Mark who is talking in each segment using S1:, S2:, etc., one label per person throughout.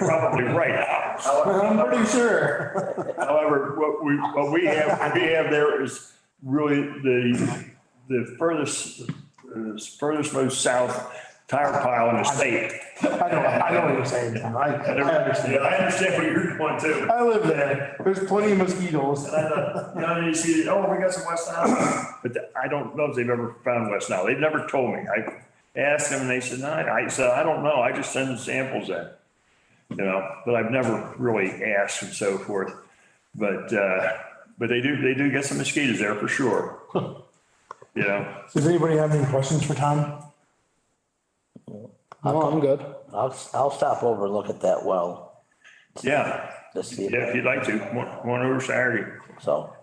S1: probably right.
S2: I'm pretty sure.
S1: However, what we, what we have, what we have there is really the, the furthest, the furthest most south tire pile in the state.
S2: I know, I know what you're saying, Tom. I, I
S1: Yeah,
S2: understand.
S1: I understand what you're going to.
S2: I live there. There's plenty of mosquitoes.
S1: And I thought, you know, you see, oh, we got some West Nile. But th- I don't know if they've ever found West Nile. They've never told me. I asked them and they said, no, I I said, I don't know. I just send them samples in. You know, but I've never really asked and so forth. But, uh, but they do, they do get some mosquitoes there for sure. You know,
S2: Does anybody have any questions for Tom?
S3: No, I'm good.
S4: I'll, I'll stop over and look at that well
S1: yeah,
S4: to
S1: yeah,
S4: see, if-
S1: if you'd like to, one, one over Saturday,
S4: so.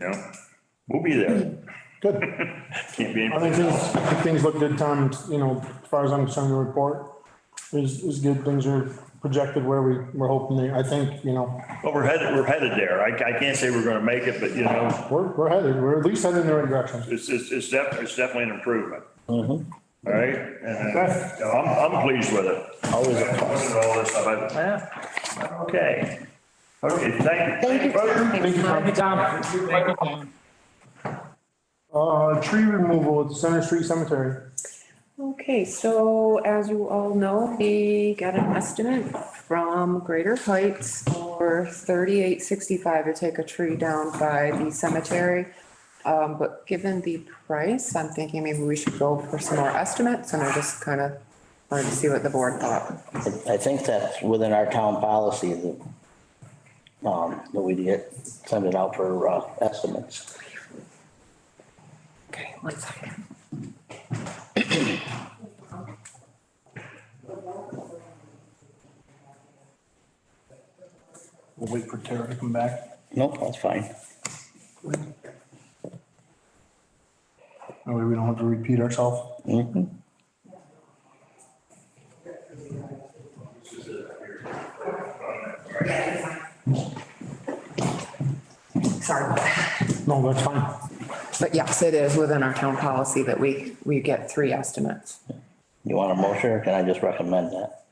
S1: you know, we'll be there.
S2: Good.
S1: Can't be,
S2: I
S1: any-
S2: think things, I think things look good, Tom. You know, as far as I'm concerned, the report is, is good. Things are projected where we, we're hoping they, I think, you know,
S1: but we're headed, we're headed there. I, I can't say we're gonna make it, but you know,
S2: we're, we're headed, we're at least headed in the right direction.
S1: It's, it's, it's definitely, it's definitely an improvement.
S4: Mm-hmm.
S1: All right, and
S2: Okay.
S1: uh, I'm, I'm pleased with it.
S4: Always a
S1: plus. All this stuff, I- yeah, okay. Okay, thank you.
S5: Thank you, Tom.
S2: Thank you, Tom.
S6: Tom.
S2: Uh, tree removal at Center Street Cemetery.
S5: Okay, so as you all know, we got an estimate from Greater Heights for thirty-eight sixty-five to take a tree down by the cemetery. Um, but given the price, I'm thinking maybe we should go for some more estimates and I just kind of wanted to see what the board thought.
S4: I think that's within our town policy that, um, that we get, send it out for, uh, estimates.
S5: Okay, one second.
S2: We'll wait for Tara to come back.
S4: Nope, that's fine.
S2: That way we don't have to repeat ourselves.
S4: Mhm.
S5: Sorry about that.
S2: No, that's fine.
S5: But yes, it is within our town policy that we, we get three estimates.
S4: You want a motion or can I just recommend that?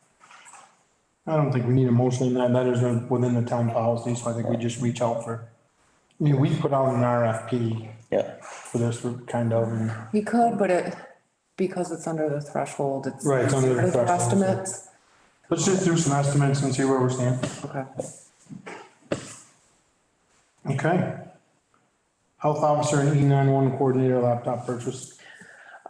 S2: I don't think we need a motion in that, that is within the town policy, so I think we just reach out for, I mean, we put out an RFP
S4: Yep.
S2: for this kind of, and
S5: We could, but it, because it's under the threshold, it's.
S2: Right, it's under the
S5: it's
S2: threshold, so-
S5: Estimates,
S2: let's just do some estimates and see where we're standing.
S5: okay.
S2: Okay. Health officer and E nine one coordinator laptop purchase.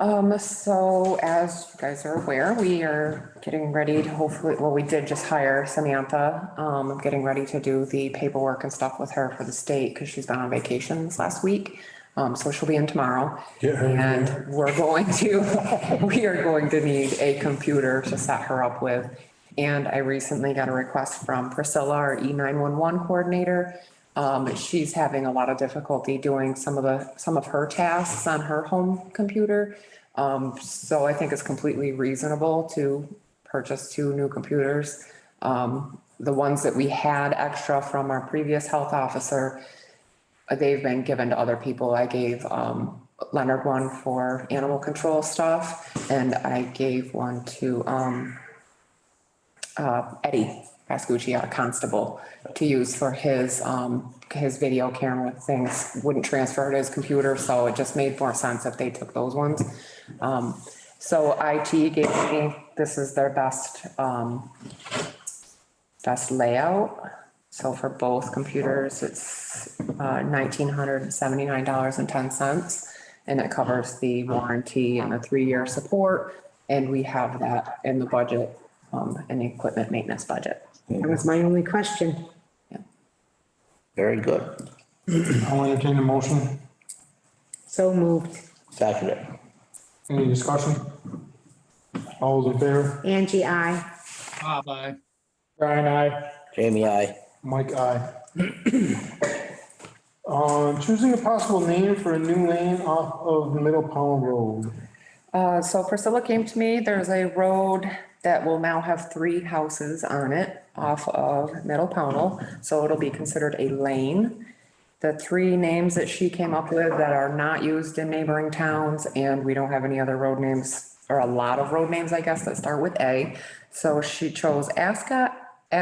S5: Um, so as you guys are aware, we are getting ready to hopefully, well, we did just hire Samantha. Um, I'm getting ready to do the paperwork and stuff with her for the state because she's been on vacations last week. Um, so she'll be in tomorrow.
S2: Get her in
S5: And we're going to, we are going to need a computer to set her up with. And I recently got a request from Priscilla, our E nine one one coordinator. Um, she's having a lot of difficulty doing some of the, some of her tasks on her home computer. Um, so I think it's completely reasonable to purchase two new computers. Um, the ones that we had extra from our previous health officer, uh, they've been given to other people. I gave um, Leonard one for animal control stuff, and I gave one to um, uh, Eddie Pascucci, our constable, to use for his, um, his video camera things. Wouldn't transfer to his computer, so it just made more sense if they took those ones. Um, So IT gave me, this is their best um, best layout. So for both computers, it's uh, nineteen hundred and seventy-nine dollars and ten cents. And it covers the warranty and the three-year support, and we have that in the budget, um, in the equipment maintenance budget.
S7: That was my only question.
S4: Very good.
S2: I'll entertain a motion.
S7: So moved.
S4: Second it.
S2: Any discussion? All those in favor?
S7: Angie, I.
S6: Bye-bye.
S2: Brian, aye.
S4: Jamie, I.
S2: Mike, aye. Uh, choosing a possible name for a new lane off of Middle Powell Road.
S5: Uh, so Priscilla came to me, there's a road that will now have three houses on it off of Middle Pownell, so it'll be considered a lane. The three names that she came up with that are not used in neighboring towns, and we don't have any other road names, or a lot of road names, I guess, that start with A. So she chose Ascot,